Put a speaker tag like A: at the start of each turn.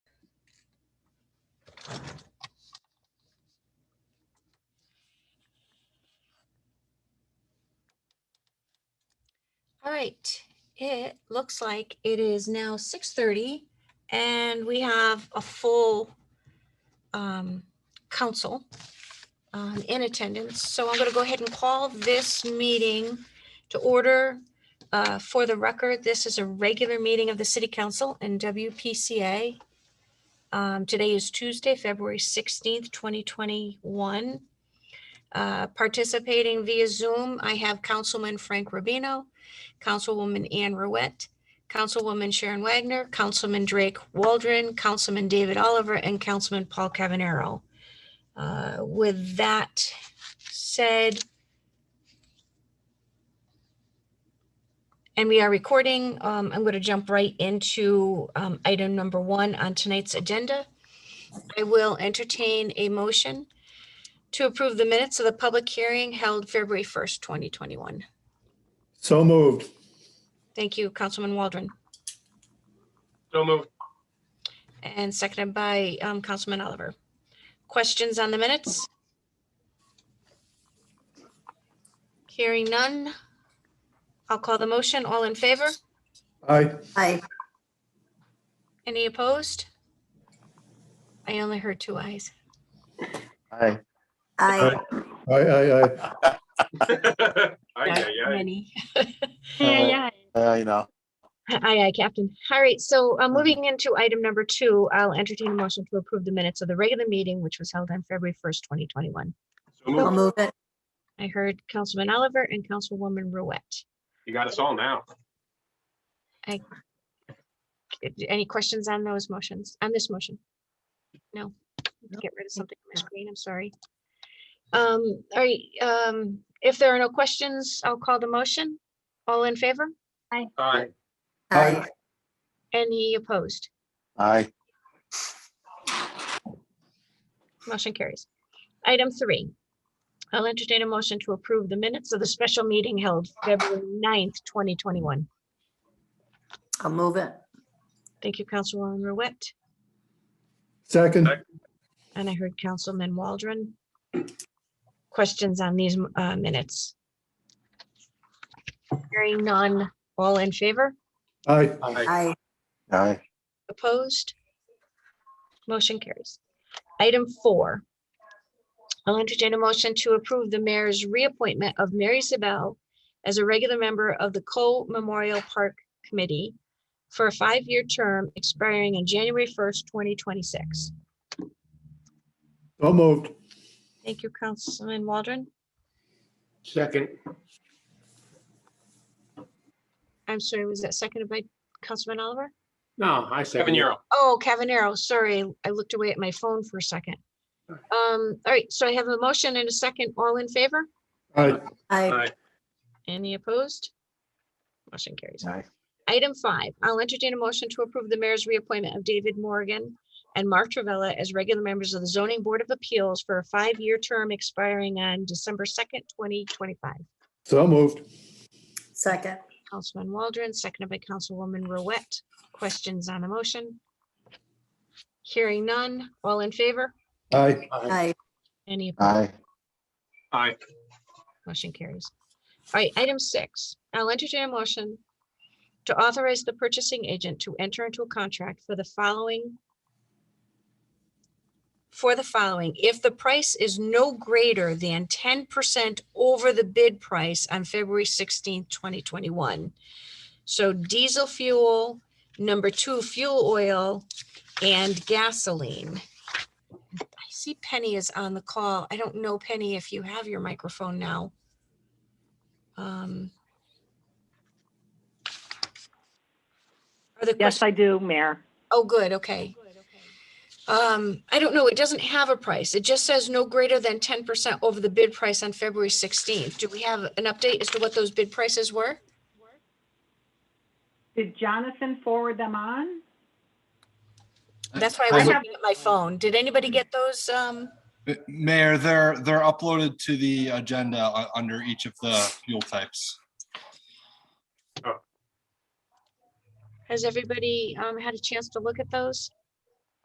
A: All right, it looks like it is now six thirty and we have a full um, council um, in attendance. So I'm going to go ahead and call this meeting to order. Uh, For the record, this is a regular meeting of the city council and WPCA. Um, Today is Tuesday, February sixteenth, twenty twenty-one. Uh, Participating via Zoom, I have Councilman Frank Rubino, Councilwoman Ann Ruette, Councilwoman Sharon Wagner, Councilman Drake Waldron, Councilman David Oliver, and Councilman Paul Cavanero. Uh, With that said, and we are recording, um, I'm going to jump right into um, item number one on tonight's agenda. I will entertain a motion to approve the minutes of the public hearing held February 1st, 2021.
B: So moved.
A: Thank you, Councilman Waldron,
C: So moved.
A: and seconded by um, Councilman Oliver. Questions on the minutes? Hearing none. I'll call the motion. All in favor?
B: Aye.
D: Aye.
A: Any opposed? I only heard two ayes.
E: Aye.
D: Aye.
B: Aye, aye, aye.
C: Aye, aye, aye.
A: Many.
E: Yeah, yeah. Uh, you know,
A: Aye, aye, Captain. All right, so uh, moving into item number two, I'll entertain a motion to approve the minutes of the regular meeting, which was held on February 1st, 2021.
C: So
D: I'll
C: moved.
D: move it.
A: I heard Councilman Oliver and Councilwoman Ruette.
C: You got us all now.
A: Uh, Any questions on those motions, on this motion? No, get rid of something from my screen, I'm sorry. Um, all right, um, if there are no questions, I'll call the motion. All in favor?
C: Aye.
B: Aye.
D: Aye.
A: Any opposed?
E: aye,
A: Motion carries. Item three. I'll entertain a motion to approve the minutes of the special meeting held February 9th, twenty twenty-one.
D: I'll move it.
A: Thank you, Councilwoman Ruette,
B: Second.
A: and I heard Councilman Waldron. Questions on these uh, minutes? Hearing none, all in favor,
B: Aye.
D: Aye.
E: aye,
A: opposed? Motion carries. Item four. I'll entertain a motion to approve the mayor's reappointment of Mary Sabel as a regular member of the Cole Memorial Park Committee for a five-year term expiring on January 1st, 2026.
B: So moved.
A: Thank you, Councilman Waldron.
C: Second.
A: I'm sorry, was that seconded by Councilman Oliver?
F: No, I
C: Kevin
F: second. it.
C: Euro.
A: Oh, Cavanero, sorry, I looked away at my phone for a second. Um, all right, so I have a motion and a second. All in favor?
B: Aye.
D: Aye.
A: Any opposed? Motion carries.
E: aye,
A: Item five, I'll entertain a motion to approve the mayor's reappointment of David Morgan and Mark Travella as regular members of the zoning board of appeals for a five-year term expiring on December second, twenty twenty-five.
B: So moved.
D: Second.
A: Councilman Waldron, seconded by Councilwoman Ruette. Questions on the motion? Hearing none. All in favor?
B: Aye.
D: Aye.
A: Any opposed?
E: aye,
C: Aye.
A: Motion carries. All right, item six, I'll entertain a motion to authorize the purchasing agent to enter into a contract for the following for the following, if the price is no greater than ten percent over the bid price on February sixteenth, twenty twenty-one. So diesel fuel, number two, fuel oil, and gasoline. I see Penny is on the call. I don't know, Penny, if you have your microphone now. Um, Are the
G: Yes,
A: questions?
G: I do, Mayor.
A: Oh, good, okay. Um, I don't know, it doesn't have a price. It just says no greater than ten percent over the bid price on February sixteenth. Do we have an update as to what those bid prices were?
G: Did Jonathan forward them on?
A: That's why I
H: I
A: was
H: have-
A: looking at my phone. Did anybody get those? Um,
H: Mayor, they're, they're uploaded to the agenda uh, under each of the fuel types.
A: has everybody, um, had a chance to look at those?